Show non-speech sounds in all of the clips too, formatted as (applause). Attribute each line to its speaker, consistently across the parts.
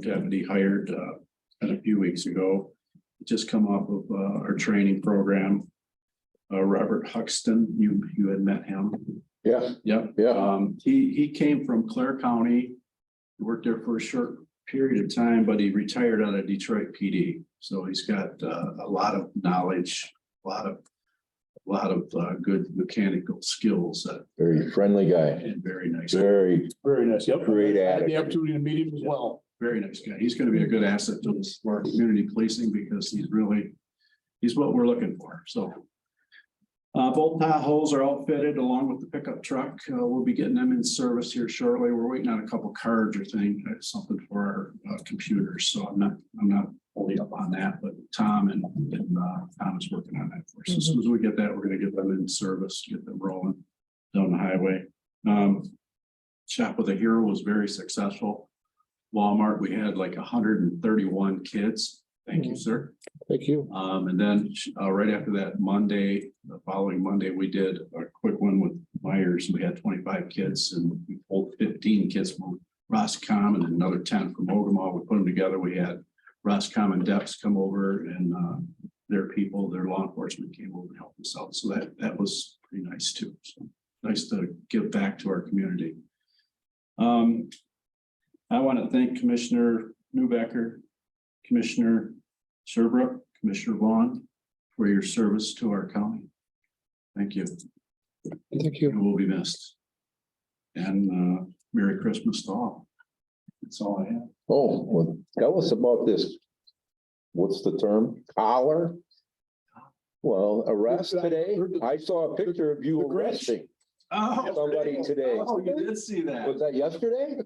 Speaker 1: deputy hired, uh, a few weeks ago. Just come off of, uh, our training program. Uh, Robert Huxton, you, you had met him.
Speaker 2: Yeah,
Speaker 1: Yep.
Speaker 2: yeah,
Speaker 1: Um, he, he came from Clare County. Worked there for a short period of time, but he retired out of Detroit PD. So he's got, uh, a lot of knowledge, a lot of, a lot of, uh, good mechanical skills that
Speaker 2: very friendly guy,
Speaker 1: and very nice,
Speaker 2: very
Speaker 3: Very nice, yep.
Speaker 2: great
Speaker 3: I had the
Speaker 2: attitude.
Speaker 3: opportunity to meet him as well.
Speaker 1: very nice guy. He's gonna be a good asset to this, for our community policing because he's really, he's what we're looking for, so. Uh, both Tahoes are outfitted along with the pickup truck. Uh, we'll be getting them in service here shortly. We're waiting on a couple cards or thing, uh, something for our uh, computers, so I'm not, I'm not fully up on that, but Tom and, and, uh, Tom is working on that for us. As soon as we get that, we're gonna get them in service, get them rolling down the highway. Um, Shop with a Hero was very successful. Walmart, we had like hundred and thirty-one kids. Thank you, sir.
Speaker 2: Mm. Thank you.
Speaker 1: Um, and then, uh, right after that Monday, the following Monday, we did a quick one with Myers. We had twenty-five kids and we pulled fifteen kids from Roscom and another ten from Ogama. We put them together. We had Roscom and Deps come over and, uh, their people, their law enforcement came over and helped us out. So that, that was pretty nice too. So Nice to give back to our community. Um, I want to thank Commissioner Newbecker, Commissioner Sherbrooke, Commissioner Vaughn, for your service to our county. Thank you.
Speaker 2: Thank
Speaker 1: You will be missed. And uh, Merry Christmas to all. That's all I have.
Speaker 2: Oh, well, tell us about this. What's the term? Collar? Well, arrest today? I saw a picture of you
Speaker 3: The Grinch.
Speaker 2: arresting.
Speaker 1: Oh,
Speaker 2: Somebody today.
Speaker 1: Oh, you did see that.
Speaker 2: Was that yesterday?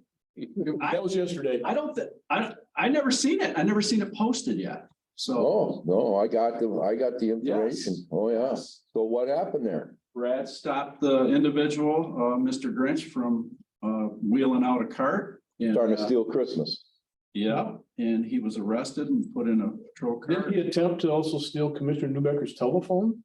Speaker 3: That was yesterday.
Speaker 1: I don't, thi- I, I never seen it. I never seen it posted yet. So.
Speaker 2: Oh, no, I got the, I got the information.
Speaker 1: Yes.
Speaker 2: Oh, yeah. So what happened there?
Speaker 1: Brad stopped the individual, uh, Mr. Grinch, from uh, wheeling out a cart. and,
Speaker 2: Starting
Speaker 1: uh,
Speaker 2: to steal Christmas.
Speaker 1: Yeah, and he was arrested and put in a patrol car.
Speaker 3: Did he attempt to also steal Commissioner Newbecker's telephone?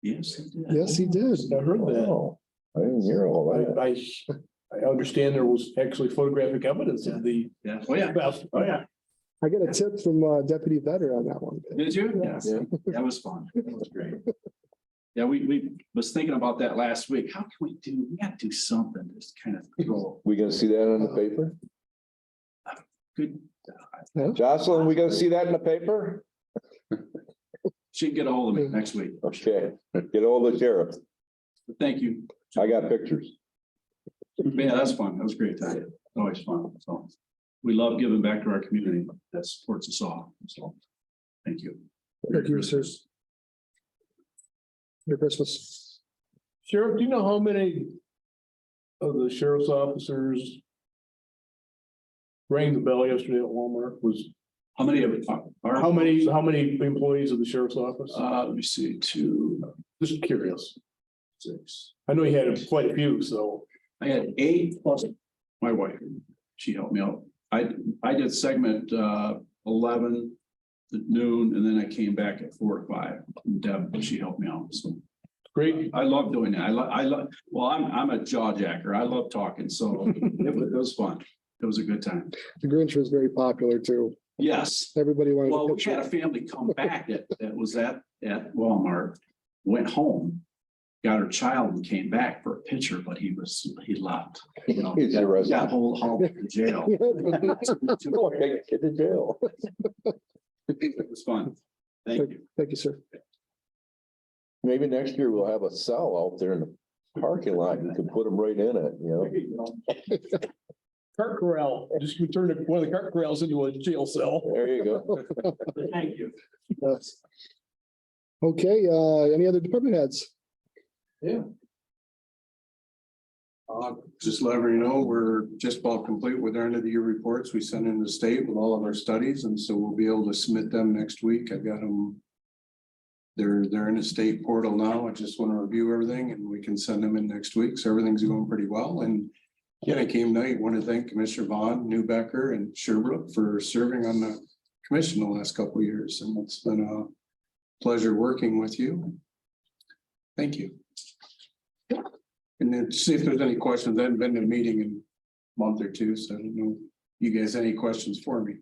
Speaker 1: Yes, he did.
Speaker 3: he did. I heard that.
Speaker 2: Oh, I didn't hear all that.
Speaker 3: Oh, I, I, I understand there was actually photographic evidence of the
Speaker 1: Yeah, oh yeah,
Speaker 3: theft.
Speaker 1: oh yeah.
Speaker 4: I got a tip from uh, Deputy Vetter on that one.
Speaker 1: Did you?
Speaker 4: Yes.
Speaker 1: Yeah, That was fun. That was great. Yeah, we, we was thinking about that last week. How can we do, we gotta do something, just kind of throw
Speaker 2: We gonna see that on the paper?
Speaker 1: good.
Speaker 2: Jocelyn, we gonna see that in the paper?
Speaker 1: She can get a hold of me next week.
Speaker 2: Okay, get all the sheriff.
Speaker 1: But Thank you.
Speaker 2: I got pictures. (laughs)
Speaker 1: Yeah, that's fun. That was a great time. Always fun. So we love giving back to our community that supports us all. So thank you.
Speaker 4: Thank you, sir. Merry Christmas.
Speaker 3: Sheriff, do you know how many of the sheriff's officers rang the bell yesterday at Walmart was,
Speaker 1: How many of uh, you?
Speaker 3: how many, how many employees of the sheriff's office?
Speaker 1: Uh, let me see, two,
Speaker 3: Just curious.
Speaker 1: six.
Speaker 3: I know you had quite a few, so.
Speaker 1: I had eight plus my wife. She helped me out. I, I did segment, uh, eleven at noon, and then I came back at four or five. Deb, she helped me out, so.
Speaker 3: Great.
Speaker 1: I love doing that. I love, I love, well, I'm, I'm a jaw jacker. I love talking,
Speaker 2: (laughs)
Speaker 1: so it was, it was fun. It was a good time.
Speaker 4: The Grinch was very popular too.
Speaker 1: Yes.
Speaker 4: Everybody wanted.
Speaker 1: Well,
Speaker 4: a
Speaker 1: we had a
Speaker 4: picture.
Speaker 1: family come back that, that was at, at Walmart, went home. Got her child and came back for a picture, but he was, he left. you know,
Speaker 2: He's arrested.
Speaker 1: Got whole, hauled to
Speaker 4: (laughs)
Speaker 1: jail.
Speaker 2: (laughs)
Speaker 1: (laughs)
Speaker 2: Go ahead, Get to jail. (laughs)
Speaker 1: It was fun. Thank you.
Speaker 4: Thank you, sir.
Speaker 2: Maybe next year we'll have a cell out there in the parking lot. You can put them right in it, you know?
Speaker 3: Cart corral, just you turn one of the cart corrals into a jail cell.
Speaker 2: There you go.
Speaker 1: Thank you.
Speaker 4: Yes. Okay, uh, any other department heads?
Speaker 5: Uh, just let everybody know, we're just about complete with our end of the year reports. We sent in the state with all of our studies and so we'll be able to submit them next week. I've got them. They're, they're in a state portal now. I just want to review everything and we can send them in next week. So everything's going pretty well and. Again, I came tonight, want to thank Commissioner Vaughn, Newbecker and Sherbrooke for serving on the commission the last couple of years and it's been a pleasure working with you. Thank you. And then see if there's any questions. I haven't been to a meeting in a month or two, so I don't know you guys any questions for me?